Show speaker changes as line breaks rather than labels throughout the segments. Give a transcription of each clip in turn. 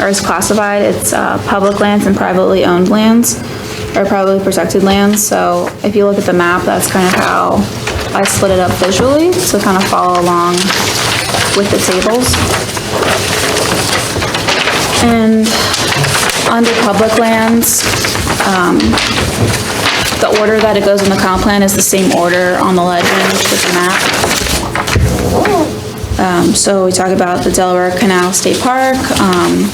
or is classified, it's uh, public lands and privately owned lands, or privately protected lands, so if you look at the map, that's kind of how I split it up visually, so kind of follow along with the tables. And under public lands, um, the order that it goes in the comp plan is the same order on the legend with the map. Um, so we talk about the Delaware Canal State Park, um,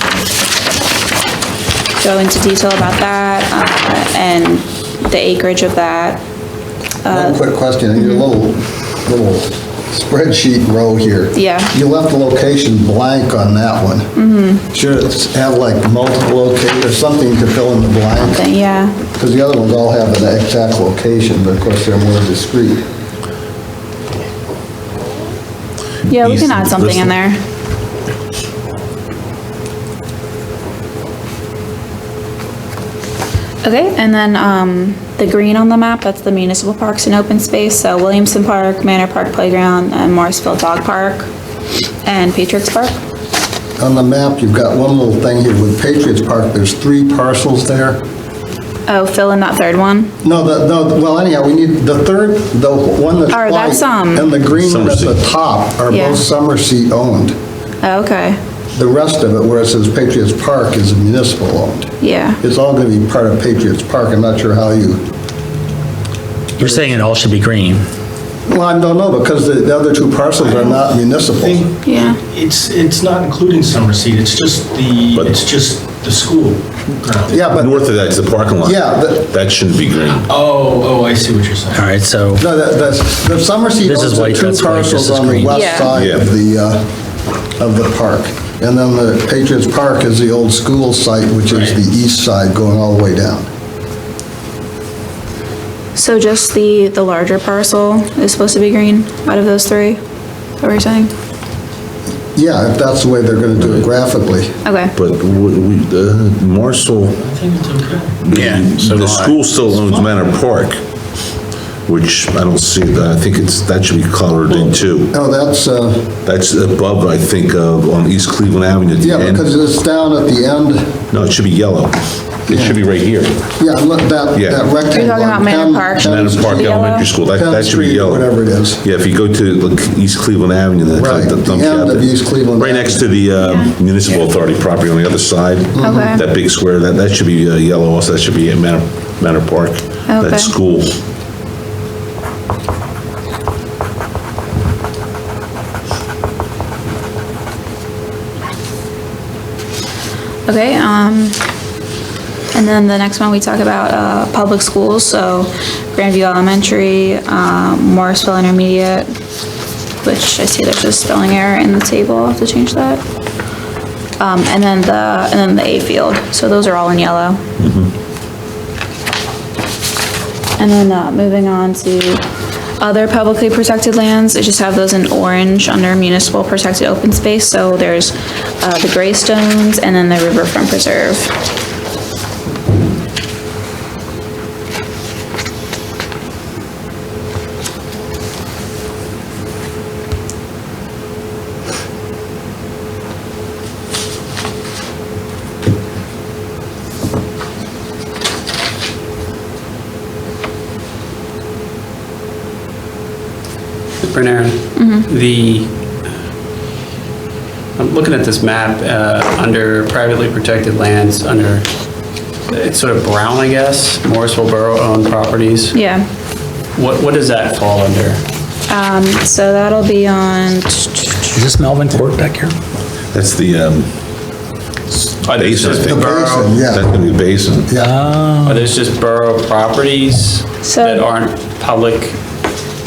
go into detail about that, uh, and the acreage of that.
One
Uh,
quick question, in your
mm-hmm.
little, little spreadsheet row here.
Yeah.
You left the location blank on that one. Mm-hmm. Should it have like multiple locations or something to fill in the blank?
Then, yeah,
Because the other ones all have an exact location, but of course they're more discrete.
yeah, we can add something in there. Okay, and then, um, the green on the map, that's the municipal parks and open space, so Williamson Park, Manor Park Playground, and Morrisville Dog Park, and Patriots Park.
On the map, you've got one little thing here with Patriots Park, there's three parcels there.
Oh, fill in that third one.
No, the, the, well anyhow, we need, the third, the one that's
Or
white.
that's, um,
And the green one at the
Somerset.
top are
Yeah.
both Summerseat owned.
Oh, okay,
The rest of it, where it says Patriots Park, is municipal owned.
yeah.
It's all going to be part of Patriots Park, I'm not sure how you,
You're saying it all should be green.
well, I don't know, because the- the other two parcels are not municipal.
think
Yeah.
It's, it's not including summer seat, it's just the,
But-
it's just the school ground.
Yeah, but,
North of that is the parking lot.
Yeah, but-
That shouldn't be green.
Oh, oh, I see what you're saying.
All right, so,
no, the- the, the Somerset
This is
owns the
white,
two
that's white, this
parcels
is
on the
green.
west
Yeah.
side
Yeah.
of the, uh, of the park. And then the Patriots Park is the old school site, which is the east side going all the way down.
So just the, the larger parcel is supposed to be green out of those three? What were you saying?
Yeah, if that's the way they're going to do it graphically.
Okay,
But we, we- the Marshall,
I think it's okay.
Yeah, so do
the
I.
school still owns Manor Park, which I don't see that. I think it's, that should be colored in too.
No, that's, uh,
That's above, I think, of, on East Cleveland Avenue at the
yeah,
end.
because it's down at the end.
No, it should be yellow. It should be right here.
Yeah, look, that,
Yeah.
that rectangle.
You're talking about
on
Manor
Penn-
Park.
Penn
Manor Park
Street,
Yellow?
Elementary School, that,
Penn
that should be
Street,
yellow.
Whatever it is.
Yeah, if you go to like, East Cleveland Avenue, that's
Right,
like the
the
dump
end
shop
of
there.
East Cleveland
Right next to the uh, municipal authority property on the other side.
Okay.
That big square, that, that should be uh, yellow also, that should be at Manor, Manor Park.
Okay.
That school.
okay, um, and then the next one we talk about, uh, public schools, so Grandview Elementary, um, Morrisville Intermediate, which I see there's a spelling error in the table, I'll have to change that. Um, and then the, and then the A field, so those are all in yellow. And then, uh, moving on to other publicly protected lands, I just have those in orange under municipal protected open space, so there's, uh, the Greystones and then the Riverfront Preserve.
Bernard,
Mm-hmm.
the, I'm looking at this map, uh, under privately protected lands, under, it's sort of brown, I guess, Morrisville Borough-owned properties.
Yeah.
What, what does that fall under?
Um, so that'll be on,
is this Melvin Court back here?
That's the um,
Are those
basin, I
just
think.
basin, yeah.
That's gonna be basin.
Are those just borough properties
So-
that aren't public?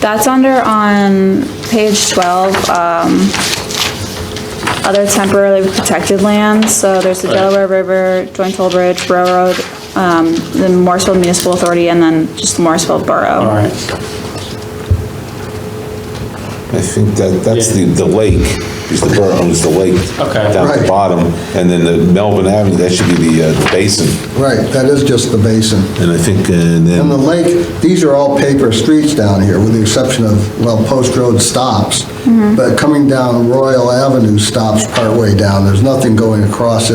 that's under on page 12, um, other temporarily protected lands, so there's the Delaware River, Joint Toll Bridge, Railroad, um, the Morrisville Municipal Authority, and then just the Morrisville Borough.
All right.
I think that, that's the, the lake, is the borough owns the lake.
Okay.
Down at
Right.
the bottom, and then the Melvin Avenue, that should be the uh, basin.
Right, that is just the basin.
And I think, uh, and then.
And the lake, these are all paper streets down here, with the exception of, well, Post Road
Mm-hmm.
stops. But coming down Royal Avenue stops partway down. There's nothing going across it.